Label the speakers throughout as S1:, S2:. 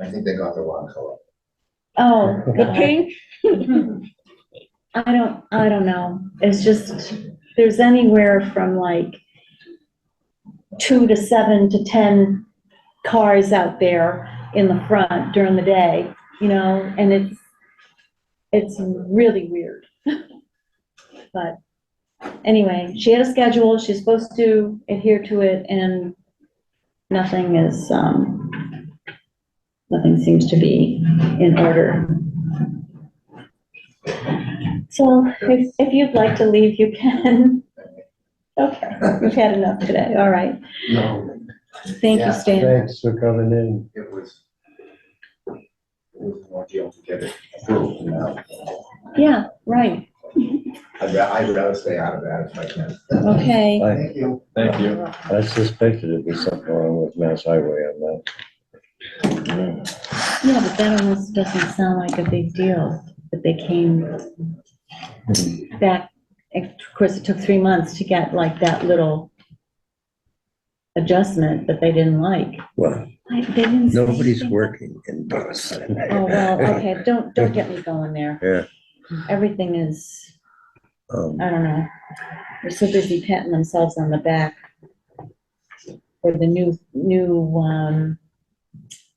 S1: I think they got the wrong color.
S2: Oh, the pink? I don't, I don't know. It's just, there's anywhere from like two to seven to 10 cars out there in the front during the day, you know, and it's, it's really weird. But anyway, she had a schedule, she's supposed to adhere to it, and nothing is, um, nothing seems to be in order. So if, if you'd like to leave, you can. Okay, we've had enough today, all right.
S3: No,
S2: Thank
S1: Yeah,
S2: you, Stan.
S3: thanks for coming in.
S1: It was. It was more deal to get it approved, you know.
S2: Yeah, right,
S1: I'd ra- I'd rather stay out of that if I can.
S2: okay.
S3: I,
S1: Thank you.
S4: Thank you.
S3: I suspected it'd be something wrong with Mass Highway on that.
S2: Yeah, but that almost doesn't sound like a big deal, that they came back. Of course, it took three months to get like that little adjustment that they didn't like.
S5: Well,
S2: I- They didn't. say
S5: nobody's
S2: anything.
S5: working in Boston.
S2: Oh, well, okay, don't, don't get me going there.
S5: Yeah.
S2: Everything is
S5: Um,
S2: I don't know, they're so busy patting themselves on the back for the new, new, um,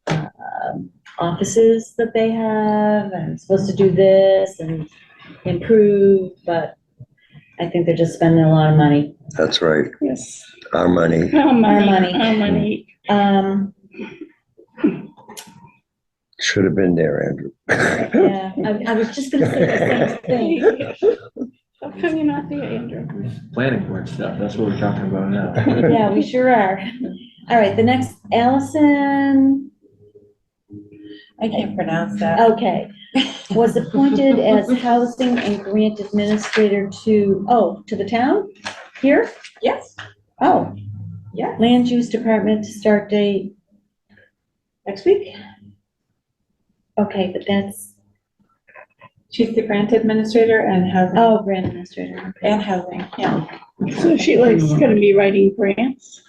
S2: um, offices that they have, and supposed to do this and improve, but I think they're just spending a lot of money.
S5: That's right,
S6: Yes.
S5: our money.
S6: Our money,
S2: money.
S6: our money.
S2: Um,
S5: Should have been there, Andrew.
S2: yeah, I, I was just gonna say the same thing.
S6: How come you're not there, Andrew?
S4: Planning board stuff, that's what we're talking about now.
S2: Yeah, we sure are. All right, the next, Allison,
S7: I can't pronounce that.
S2: Okay, was appointed as housing and grant administrator to, oh, to the town? Here?
S7: Yes,
S2: Oh.
S7: Yeah.
S2: Land use department start date next week? Okay, but that's,
S7: she's the grant administrator and housing,
S2: oh, grant administrator. okay.
S7: and housing, yeah,
S6: So she likes gonna be writing grants.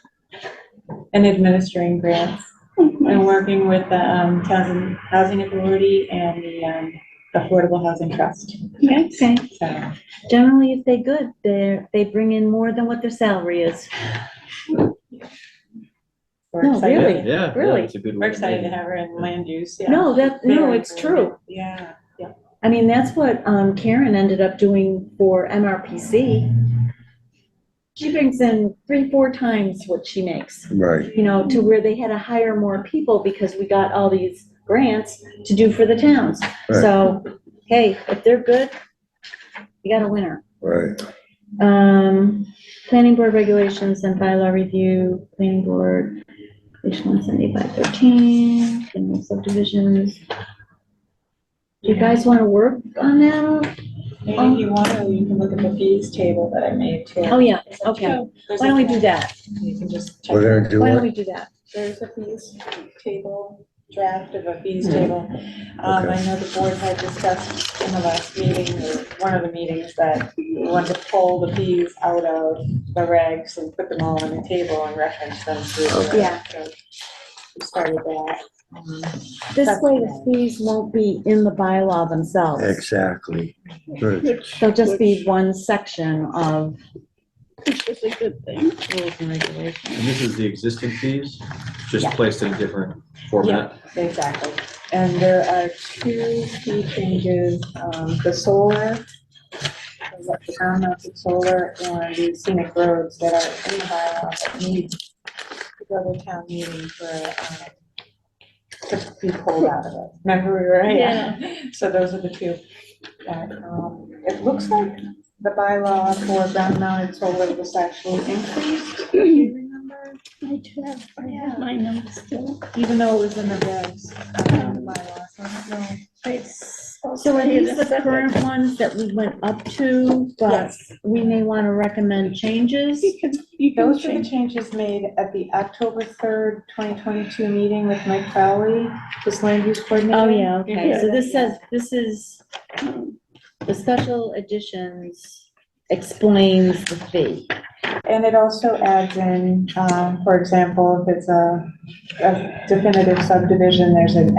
S7: and administering grants. And working with the um, Towns and Housing Authority and the um, Affordable Housing Trust.
S2: Okay.
S7: So,
S2: Generally, if they good, they're, they bring in more than what their salary is.
S7: we're
S2: No,
S7: excited-
S2: Really?
S4: Yeah, Yeah,
S2: Really?
S4: it's a good
S7: We're
S4: way. to
S7: excited to
S4: make it.
S7: have her in land use, yeah.
S2: No, that, no,
S7: Very
S2: it's
S7: good.
S2: true.
S7: Yeah, yeah.
S2: I mean, that's what um, Karen ended up doing for MRPC. She brings in three, four times what she makes,
S5: Right,
S2: you know, to where they had to hire more people because we got all these grants to do for the towns. So, hey, if they're good, you got a winner.
S5: right.
S2: Um, planning board regulations and bylaw review, planning board, page one seventy-five thirteen, and subdivisions. Do you guys wanna work on that?
S7: And if you want to, you can look at the fees table that I made too.
S2: Oh, yeah,
S7: There's a-
S2: okay.
S7: there's
S2: Why
S7: a-
S2: don't we do that?
S7: You can just check.
S5: We're gonna do
S2: Why don't
S5: what?
S2: we do that?
S7: There's a fees table, draft of a fees table. Um, I know the board had discussed in the last meeting, or one of the meetings, that we wanted to pull the fees out of the regs and put them all on the table and reference them through. the
S2: Okay. Yeah.
S7: regs. So We started that. Um,
S2: This way the fees won't be in the bylaw themselves.
S5: Exactly. Good.
S6: Which
S2: They'll just be one section of
S6: which is a good thing.
S2: rules and regulations.
S4: And this is the existing fees, just
S2: Yeah.
S4: placed in a different format.
S7: Exactly. And there are two key changes, um, the solar, the ground-mounted solar and the scenic roads that are in the bylaw that need to go to town meeting for, um, to be pulled out of it. Remember, we were, yeah. So those are the two. that, um, It looks like the bylaw for ground-mounted solar was actually increased, do you remember?
S6: I do have, I have my numbers still.
S7: Even though it was in the regs, um, bylaw, so I don't know.
S2: So are these the current ones that we went up to, but we may wanna recommend changes?
S6: You can, you can
S7: Those were the
S6: change.
S7: changes made at the October third, twenty twenty-two meeting with Mike Crowley, this land use coordinator.
S2: Oh, yeah, okay,
S7: Yeah.
S2: so this says, this is, the special editions explains the fee.
S7: And it also adds in, um, for example, if it's a a definitive subdivision, there's an